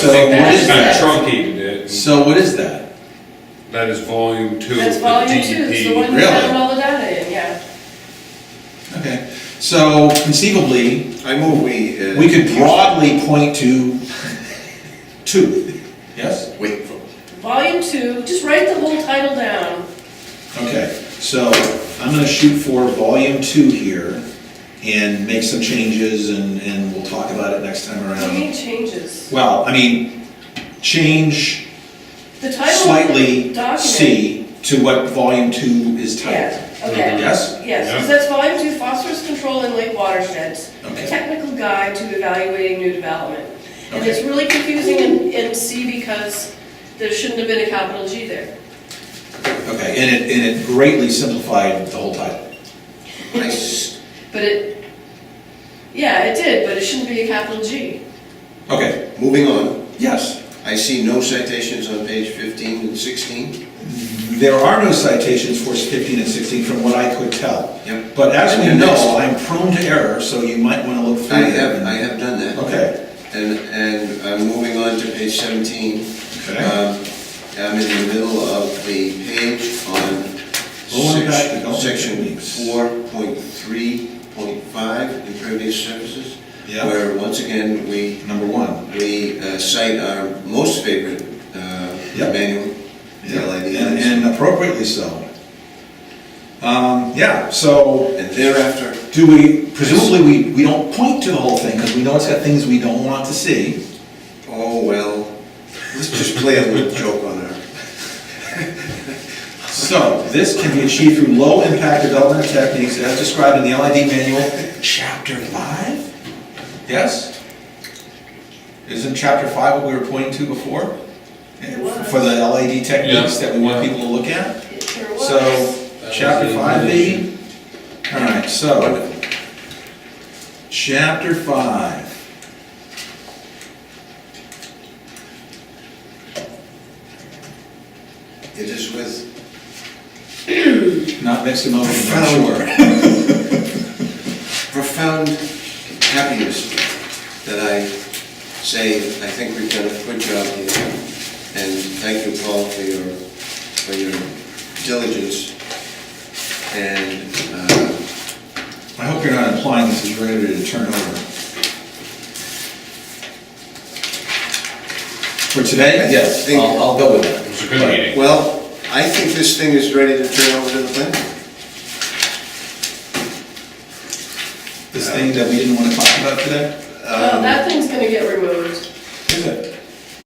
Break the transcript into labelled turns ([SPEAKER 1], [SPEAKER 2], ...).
[SPEAKER 1] So
[SPEAKER 2] think
[SPEAKER 1] what
[SPEAKER 2] that
[SPEAKER 1] is
[SPEAKER 2] is
[SPEAKER 3] Kind of
[SPEAKER 1] that?
[SPEAKER 3] truncated it,
[SPEAKER 1] So what is that?
[SPEAKER 3] that is volume two.
[SPEAKER 2] That's
[SPEAKER 3] of the E
[SPEAKER 2] volume two, it's the
[SPEAKER 3] DEP.
[SPEAKER 2] one
[SPEAKER 1] E Really?
[SPEAKER 2] that's got all the data in, yeah.
[SPEAKER 1] Okay, so conceivably,
[SPEAKER 4] I move we. uh,
[SPEAKER 1] we could broadly point to two. Yes?
[SPEAKER 4] Wait, for-
[SPEAKER 2] Volume two, just write the whole title down.
[SPEAKER 1] Okay, so I'm gonna shoot for volume two here and make some changes and, and we'll talk about it next time
[SPEAKER 2] What do you
[SPEAKER 1] around.
[SPEAKER 2] mean changes?
[SPEAKER 1] Well, I mean, change
[SPEAKER 2] The title of the
[SPEAKER 1] slightly
[SPEAKER 2] document.
[SPEAKER 1] C to what volume two is titled.
[SPEAKER 2] Yeah, okay.
[SPEAKER 1] Yes?
[SPEAKER 2] Yes,
[SPEAKER 3] Yeah.
[SPEAKER 2] because that's volume two, phosphorus control in lake watersheds,
[SPEAKER 1] Okay.
[SPEAKER 2] a technical guide to evaluating new development. And
[SPEAKER 1] Okay.
[SPEAKER 2] it's really confusing in, in C because there shouldn't have been a capital G there.
[SPEAKER 1] Okay, and it, and it greatly simplified the whole title.
[SPEAKER 4] I s-
[SPEAKER 2] But it, yeah, it did, but it shouldn't be a capital G.
[SPEAKER 1] Okay,
[SPEAKER 4] Moving on,
[SPEAKER 1] yes,
[SPEAKER 4] I see no citations on page 15 and 16.
[SPEAKER 1] there are no citations for 15 and 16 from what I could tell.
[SPEAKER 4] Yep.
[SPEAKER 1] But as we
[SPEAKER 4] And
[SPEAKER 1] know,
[SPEAKER 4] next-
[SPEAKER 1] I'm prone to error, so you might want to look
[SPEAKER 4] I
[SPEAKER 1] through
[SPEAKER 4] have, I
[SPEAKER 1] it.
[SPEAKER 4] have done that.
[SPEAKER 1] Okay.
[SPEAKER 4] And, and I'm moving on to page 17.
[SPEAKER 1] Okay.
[SPEAKER 4] Um, I'm in the middle of the page on
[SPEAKER 1] Well, I'm back to
[SPEAKER 4] sec-
[SPEAKER 1] golden
[SPEAKER 4] section
[SPEAKER 1] techniques.
[SPEAKER 4] 4.3.5, impervious surfaces.
[SPEAKER 1] Yeah.
[SPEAKER 4] Where, once again, we
[SPEAKER 1] Number one.
[SPEAKER 4] We uh, cite our most favorite uh,
[SPEAKER 1] Yep.
[SPEAKER 4] manual, the LID.
[SPEAKER 1] And and appropriately so. Um, yeah, so
[SPEAKER 4] And thereafter,
[SPEAKER 1] do we, presumably, we, we don't point to the whole thing because we know it's got things we don't want to see.
[SPEAKER 4] oh well, let's just play a little joke on her.
[SPEAKER 1] So this can be achieved through low-impact development techniques as described in the LID manual, chapter five? Yes? Isn't chapter five what we were pointing to before? Eh, For the LID techniques that we want people to look at?
[SPEAKER 2] It sure was.
[SPEAKER 1] So, chapter five, baby? All right, so,
[SPEAKER 4] Wonderful.
[SPEAKER 1] chapter five.
[SPEAKER 4] It is with
[SPEAKER 1] Not mixed emotions, I'm sure.
[SPEAKER 4] profound happiness that I say, I think we've done a good job here. And thank you, Paul, for your, for your diligence. And uh,
[SPEAKER 1] I hope you're not implying this is ready to turn over. For today? Yes, I'll, I'll go with that.
[SPEAKER 3] It was a good meeting.
[SPEAKER 4] Well, I think this thing is ready to turn over to the planning. board.
[SPEAKER 1] This thing that we didn't want to talk about today? um,
[SPEAKER 2] Well, that thing's gonna get removed.
[SPEAKER 1] Is it?